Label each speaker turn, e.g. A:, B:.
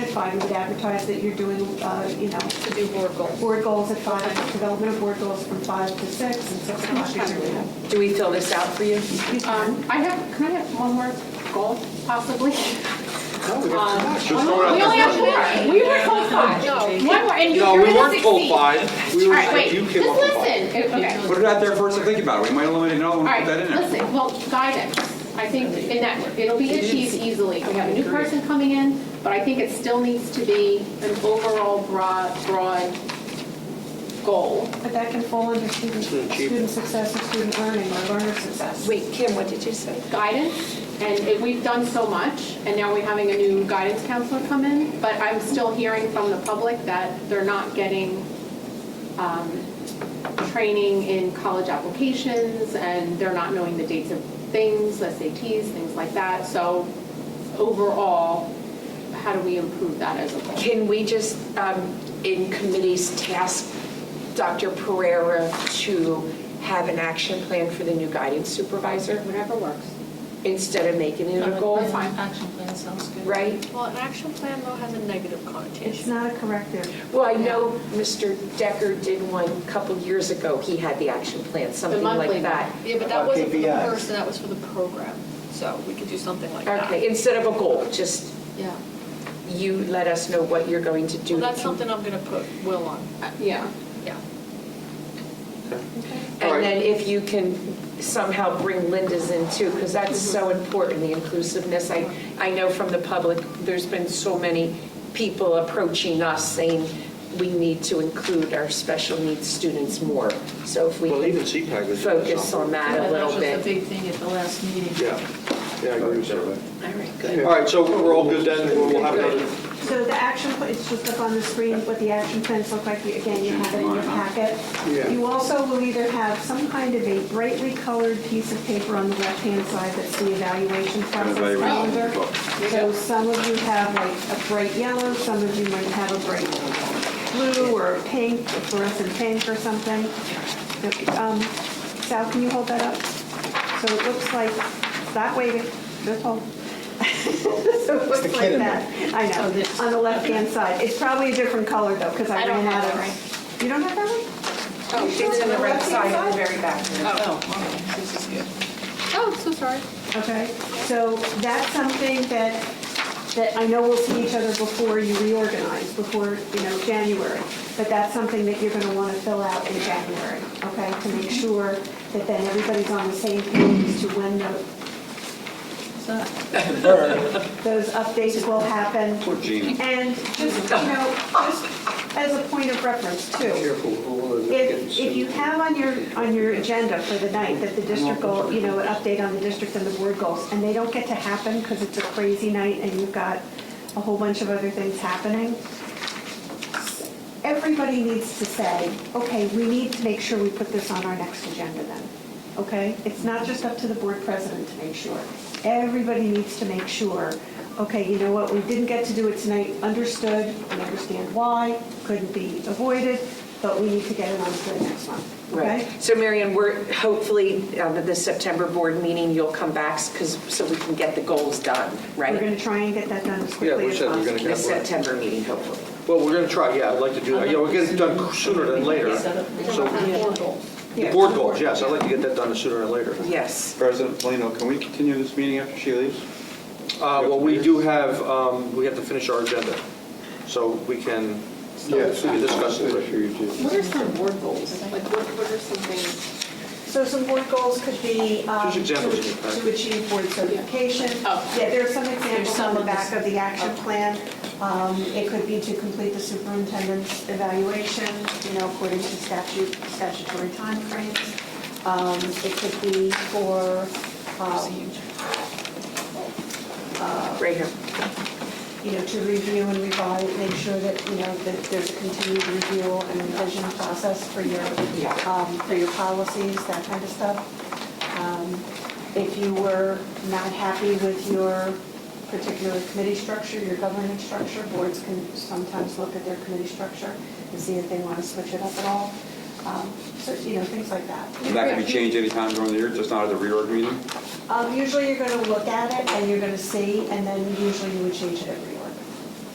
A: five, you would advertise that you're doing, uh, you know,
B: to do board goals.
A: board goals at five, development of board goals from five to six, and six
B: How much
A: o'clock
B: time
A: is
B: do we
A: your.
B: have?
C: Do we fill this out for you?
B: Um, I have, can I have one more goal possibly?
D: Just go out
B: We only have
D: there.
B: four. We were told five. One more, and you
D: No,
B: were
D: we
B: the
D: weren't told
B: 16.
D: five. We
B: All
D: were,
B: right, wait,
D: you
B: just
D: came up with five.
B: listen. Okay.
D: Put it out there first and think about it. We might eliminate another one
B: All
D: and
B: right,
D: put that in there.
B: listen, well, guidance, I think in that, it'll be achieved easily. We have a new person coming in, but I think it still needs to be an overall broad, broad goal.
A: But that can fall under student, student success and student learning or learner success.
C: Wait, Kim, what did you say?
B: Guidance, and it- we've done so much, and now we're having a new guidance counselor come in, but I'm still hearing from the public that they're not getting um, training in college applications, and they're not knowing the dates of things, SATs, things like that. So overall, how do we improve that as a whole?
C: Can we just, um, in committees, task Dr. Pereira to have an action plan for the new guidance supervisor
B: Whatever works.
C: instead of making it a goal?
B: That's fine.
E: Action plan sounds good.
C: Right?
F: Well, an action plan though has a negative
A: It's
F: connotation.
A: not a corrective.
C: Well, I know Mr. Decker did one a couple years ago. He had the action plan, something
B: monthly
C: like
B: one.
C: that.
F: Yeah, but
G: About
F: that wasn't for the
G: KPIs.
F: person, that was for the program. So we could do something like that.
C: Okay, instead of a goal, just
F: Yeah.
C: you let us know what you're going to do.
F: Well, that's something I'm gonna put Will on,
B: Uh, Yeah.
F: yeah.
C: And then if you can somehow bring Linda's in too, because that's
H: Mm-hmm.
C: so important, the inclusiveness. I, I know from the public, there's been so many people approaching us saying we need to include our special needs students more. So if we
H: Well, even
C: could
H: CPAC is.
C: focus on that a
E: That
C: little
E: was a
C: bit.
E: big thing at the last meeting.
H: Yeah, yeah, I agree with you.
C: All right, good.
H: All right, so we're all good then, we'll we'll have another,
A: So the action, pla- it's just up on the screen, what the action plans look like, You- again, you have it in your packet.
H: Yeah.
A: You also will either have some kind of a brightly colored piece of paper on the left-hand side that's the evaluation process
D: evaluation
A: calendar.
D: book.
A: So some of you have like a bright yellow, some of you might have a bright blue or a pink, a fluorescent pink or something. Um, Sal, can you hold that up? So it looks like, that waving, just hold. So it looks
G: the
A: like
G: kid in
A: that. I
C: Oh,
A: know, on the left-hand side. It's probably a different color though, because I
F: I don't
A: ran out
F: have
A: of.
F: that, right?
A: You don't have that one?
C: Oh, It's on the right side, on the very back.
E: Oh, okay, this is good.
F: Oh, so sorry.
A: Okay, so that's something that, that I know we'll see each other before you reorganize, before, you know, January. But that's something that you're gonna wanna fill out in January, okay? To make sure that then everybody's on the same page as to when the-
E: So,
A: those updates will happen.
D: Poor Gina.
A: And just, you know, just as a point of reference too, if, if you have on your, on your agenda for the night that the district goal, you know, an update on the district and the board goals, and they don't get to happen because it's a crazy night and you've got a whole bunch of other things happening, everybody needs to say, okay, we need to make sure we put this on our next agenda then, okay? It's not just up to the board president to make sure. Everybody needs to make sure, okay, you know what, we didn't get to do it tonight, understood, we understand why, couldn't be avoided, but we need to get it on to the next one,
C: Right.
A: okay?
C: So Marion, we're, hopefully, um, at the September board meeting, you'll come back, because, so we can get the goals done,
A: We're
C: right? Um,
A: gonna try and get that done as
H: Yeah,
A: quickly
H: we
A: as
H: said we're
A: possible.
H: gonna
C: The
H: get one.
C: September meeting, hopefully.
H: Well, we're gonna try, yeah, I'd like to do that, yeah, we'll get it done sooner than later. So,
F: Board goals.
H: the board goals, yes, I'd like to get that done sooner than later.
C: Yes.
D: President Polino, can we continue this meeting after she leaves?
H: Uh, well, we do have, um, we have to finish our agenda, so we can, we can discuss it.
B: What are some board goals? Like, what what are some things?
A: So some board goals could be um,
H: Just
A: to
H: examples in the packet.
A: to achieve board certification.
B: Oh.
A: Yeah, there are some examples on
E: some
A: the
E: of this.
A: back of the action plan. Um, It could be to complete the superintendent's evaluation, you know, according to statute, statutory timeframes. Um, It could be for, uh, um,
C: Right here.
A: you know, to review and revise, make sure that, you know, that there's a continued review and revision process for your,
C: Yeah.
A: um, for your policies, that kind of stuff. Um, If you were not happy with your particular committee structure, your governance structure, boards can sometimes look at their committee structure and see if they want to switch it up at all. Um, So, you know, things like that.
D: And that can be changed anytime during the year, just not at the reorg meeting?
A: Um, Usually you're going to look at it and you're going to see, and then usually you would change it every year.